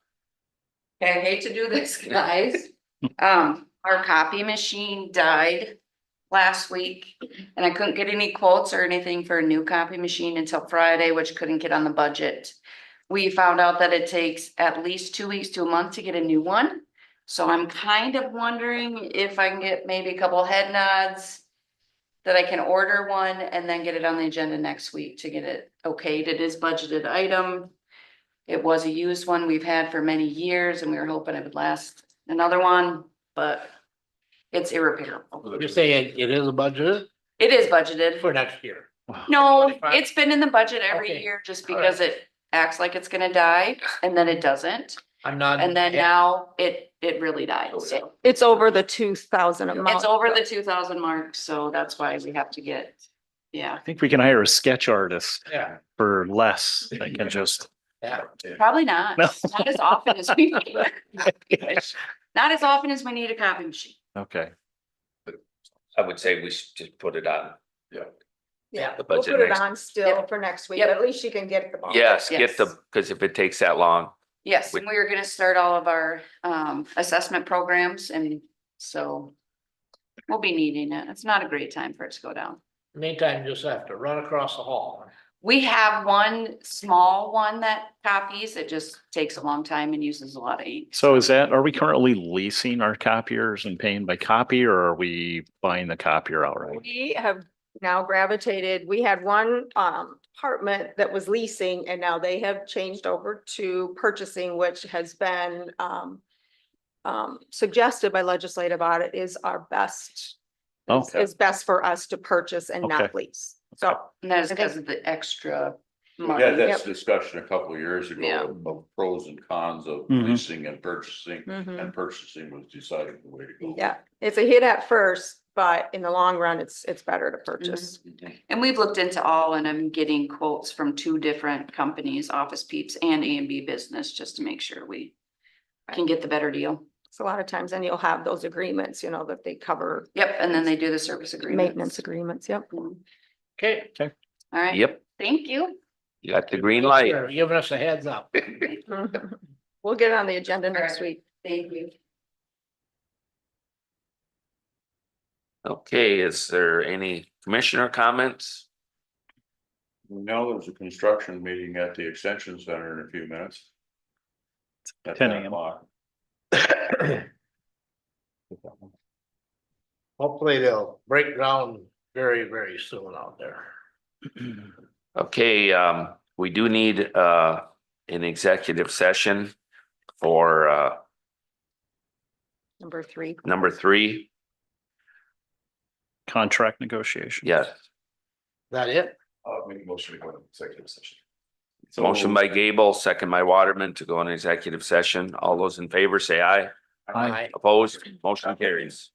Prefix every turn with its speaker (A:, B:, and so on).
A: I hate to do this, guys. Um, our copy machine died last week. And I couldn't get any quotes or anything for a new copy machine until Friday, which couldn't get on the budget. We found out that it takes at least two weeks to a month to get a new one. So I'm kind of wondering if I can get maybe a couple head nods. That I can order one and then get it on the agenda next week to get it okayed. It is budgeted item. It was a used one we've had for many years and we were hoping it would last another one, but it's irreparable.
B: You're saying it is a budget
A: It is budgeted.
B: for next year.
A: No,
B: Fine.
A: it's been in the budget every
B: Okay.
A: year just
B: All
A: because it acts like it's gonna die and then it doesn't.
B: I'm not.
A: And then now it, it really died. So
C: It's over the two thousand a month.
A: it's over the two thousand mark, so that's why we have to get, yeah.
D: I think we can hire a sketch artist
B: Yeah.
D: for less that can just.
B: Yeah.
A: Probably not.
D: No.
A: Not as often as we, not as often as we need a copy machine.
D: Okay,
E: I would say we should just put it on.
C: Yeah,
E: the
C: we'll
E: budget
C: put it
E: next-
C: on still
A: Yep.
C: for next week.
A: Yep.
C: At least you can get the ball.
E: Yes,
A: Yes.
E: get the, because if it takes that long,
A: Yes,
E: We-
A: and we were gonna start all of our um assessment programs and so. We'll be needing it. It's not a great time for it to go down.
B: Meantime, you just have to run across the hall.
A: We have one small one that copies. It just takes a long time and uses a lot of ink.
D: so is that, are we currently leasing our copiers and paying by copy or are we buying the copier outright?
C: We have now gravitated, we had one um apartment that was leasing and now they have changed over to purchasing, which has been um. Um, suggested by legislative audit is our best,
D: Oh,
C: is best for us to purchase and not
D: Okay.
C: lease. So
A: And that is
C: I think-
A: because of the extra
F: We had
A: money.
F: this discussion a couple of years
A: Yeah.
F: ago of pros and cons of
D: Mhm.
F: leasing and purchasing,
C: mhm.
F: and purchasing was decided the way to go.
C: yeah, it's a hit at first, but in the long run, it's it's better to
A: Mm-hmm.
C: purchase.
A: And we've looked into all and I'm getting quotes from two different companies, Office Peeps and A and B Business, just to make sure we can get the better deal.
C: So a lot of times then you'll have those agreements, you know, that they cover
A: Yep, and then they do the service agreement.
C: maintenance agreements, yep.
A: All
B: Okay.
A: right.
E: yep,
A: Thank you.
E: you got the green light.
B: You're Giving us a heads up.
C: Mhm. We'll get it on the agenda next
A: Correct.
C: week.
A: Thank you.
E: Okay, is there any commissioner comments?
F: Now there's a construction meeting at the Extension Center in a few minutes. At
D: 10
F: nine
D: a.m..
F: o'clock.
B: Hopefully they'll break ground very, very soon out there.
E: Okay, um, we do need, uh, an executive session for, uh,
C: Number three.
E: number three.
D: contract negotiation.
E: Yes,
B: That it?
F: I'll make a motion to go to executive session.
E: motion by Gable, second by Waterman to go on executive session. All those in favor, say aye.
D: Aye.
E: Opposed, motion carries.